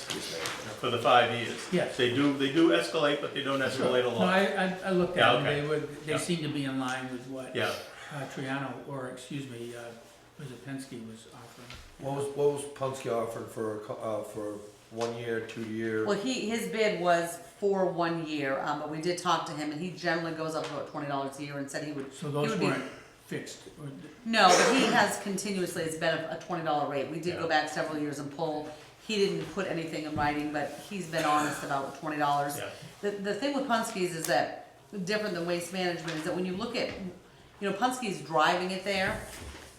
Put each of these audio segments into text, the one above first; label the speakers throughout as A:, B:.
A: for the five years.
B: Yes.
A: They do, they do escalate, but they don't escalate a
B: No,
A: lot.
B: I, I, I looked
A: Yeah,
B: at them,
A: okay.
B: they were,
A: Yeah.
B: they seemed to be in line with what
A: Yeah,
B: uh, Triano, or excuse me, uh, was it Penske was offering.
C: What was, what was Punske offering for, a co- uh, for one year, two year?
D: Well, he, his bid was for one year, um, but we did talk to him and he generally goes up to about twenty dollars a year and said he would.
B: So
D: he
B: those
D: would be-
B: weren't fixed, or th-
D: No, but he has continuously, it's been a a twenty dollar rate. We did
A: Yeah.
D: go back several years and pull. He didn't put anything in writing, but he's been honest about twenty dollars.
A: yeah,
D: The, the thing with Punskies is that, different than waste management, is that when you look at, you know, Punski's driving it there,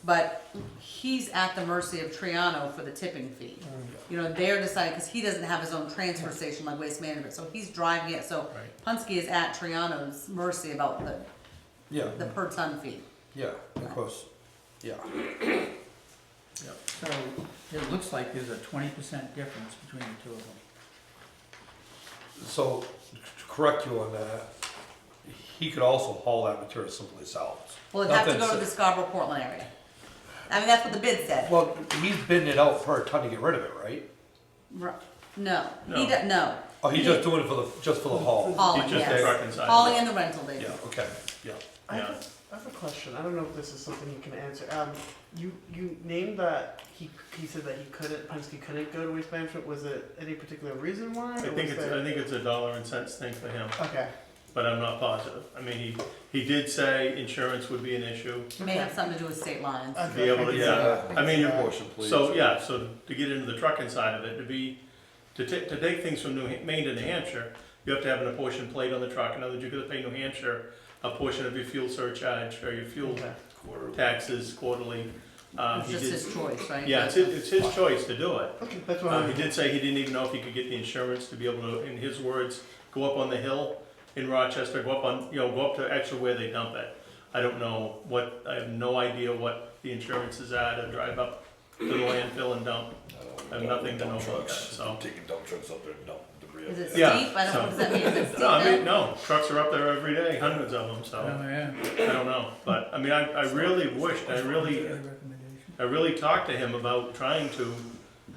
D: but he's at the mercy of Triano for the tipping fee.
A: Oh,
D: You know, they're deciding, because he doesn't have his own transfer station like waste management, so he's driving it, so
A: Right.
D: Punske is at Triano's mercy about the,
C: Yeah,
D: the per ton fee.
C: yeah, of course, yeah.
A: yeah.
B: so it looks like there's a twenty percent difference between the two of them.
C: So, to correct you on that, he could also haul that material simply south.
D: Well, it'd have to
C: Nothing
D: go to the
C: sa-
D: Scarborough Portland area. I mean, that's what the bid said.
C: Well, he's bidding it out per ton to get rid of it, right?
D: Ru- No,
A: No.
D: he does, no.
C: Oh, he's just doing it for the, just for the haul?
D: Hauling,
A: just the truck
D: yes.
A: inside.
D: Hauling and the rental,
C: Yeah,
D: David.
C: okay, yeah.
E: I have,
A: Yeah.
E: a, I have a question. I don't know if this is something you can answer. Um, you you named that he he said that he couldn't Penske couldn't go to waste management. Was it any particular reason why?
A: I think it's, I think it's a dollar and cents thing for him,
E: okay.
A: but I'm not positive. I mean, he, he did say insurance would be an issue.
D: May have something to do with state lines.
A: To be able to, yeah, I mean,
E: Yeah.
C: Motion, please.
A: So, yeah, so to get into the trucking side of it, to be, to take, to take things from New, Ha- Maine to New Hampshire, you have to have an apportion plate on the truck, in other words, you're gonna pay New Hampshire a portion of your fuel surcharge or your fuel
E: Okay.
A: taxes quarterly. Um,
D: It's
A: he
D: just
A: did,
D: his choice, right?
A: yeah, it's, his- it's his choice to do it.
E: Okay, that's what
A: Uh,
E: I'm.
A: he did say he didn't even know if he could get the insurance to be able to, in his words, go up on the hill in Rochester, go up on, you know, go up to actually where they dump it. I don't know what, I have no idea what the insurance is at, to drive up to the landfill and dump. I have nothing to know about that, so.
F: Taking dump trucks up there and dumping debris.
D: Is it steep?
A: Yeah,
D: I don't know, does that mean it's steep
A: No, I mean,
D: then?
A: no, trucks are up there every day, hundreds of them, so,
B: Oh, yeah.
A: I don't know. But, I mean, I, I really wished, I really,
B: Good recommendation.
A: I really talked to him about trying to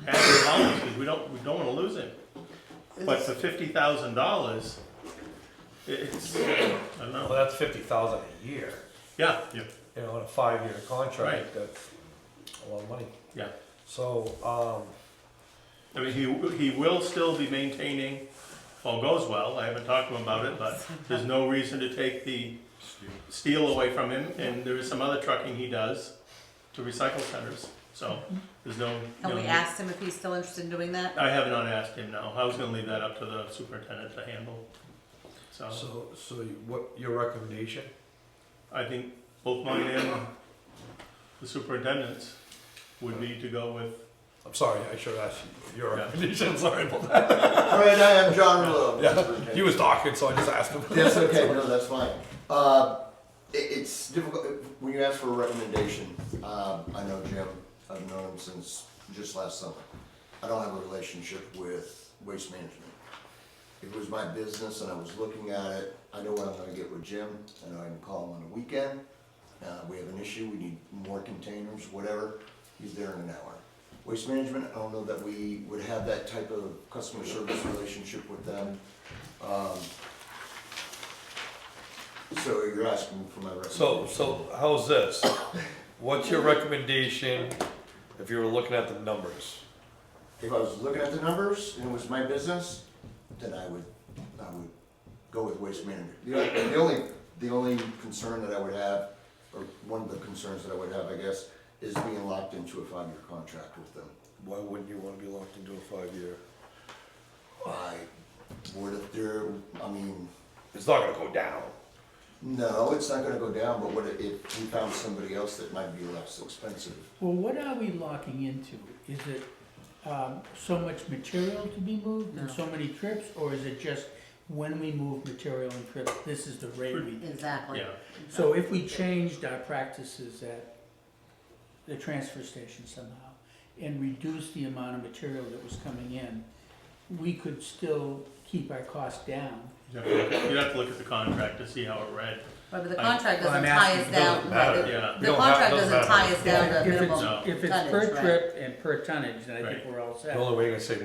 A: have him on, because we don't, we don't wanna lose him. But for fifty thousand dollars, it's, I don't
C: Well,
A: know,
C: that's fifty thousand a year,
A: yeah, yeah,
C: you know, on a five-year
A: Right.
C: contract, that's a lot of money.
A: yeah.
C: So, um,
A: I mean, he, he will still be maintaining, if all goes well, I haven't talked to him about it, but there's no reason to take the steel away from him, and there is some other trucking he does to recycle centers, so there's no.
D: Have
A: no
D: we
A: need-
D: asked him if he's still interested in doing that?
A: I have not asked him, no, I was gonna leave that up to the superintendent to handle, so.
C: so, so you- what, your recommendation?
A: I think both mine and the superintendent's would be to go with,
C: I'm sorry, I should ask you your
A: Yeah.
C: recommendation, sorry about that.
G: All right, I am John Willow.
C: Yeah, he was talking, so I just asked him.
G: That's okay, no, that's fine. Uh, it, it's difficult, when you ask for a recommendation, uh, I know Jim, I've known him since just last summer. I don't have a relationship with waste management. It was my business and I was looking at it, I know what I'm gonna get with Jim, I know I can call him on the weekend. Uh, we have an issue, we need more containers, whatever, he's there in an hour. Waste management, I don't know that we would have that type of customer service relationship with them. Um, so you're asking for my
C: So,
G: recommendation?
C: so how's this? What's your recommendation if you were looking at the numbers?
G: If I was looking at the numbers and it was my business, then I would, I would go with waste management. The only- The only, the only concern that I would have, or one of the concerns that I would have, I guess, is being locked into a five-year contract with them.
C: Why wouldn't you wanna be locked into a five-year?
G: I, what if they're, I mean,
F: It's not gonna go down.
G: no, it's not gonna go down, but what if we found somebody else that might be less expensive?
B: Well, what are we locking into? Is it, um, so much material to be moved and
D: No.
B: so many trips, or is it just when we move material and trips, this is the rate we
D: Exactly.
A: yeah,
B: So if we changed our practices at the transfer station somehow and reduced the amount of material that was coming in, we could still keep our cost down.
A: you'd have to look at- you'd have to look at the contract to see how it read,
D: Right, but the
A: I-
D: contract
B: Well, I'm
D: doesn't tie
B: asking,
D: us
B: it
D: down,
C: doesn't matter.
D: right,
A: yeah.
D: the-
C: We
D: the
C: don't have-
D: contract
C: doesn't matter.
D: doesn't tie us down to a
B: If it's,
D: minimum.
A: No.
B: if it's
D: tonnage,
B: per
D: right.
B: trip and per tonnage, then I
A: Right.
B: think we're all set.
C: The only way you're gonna save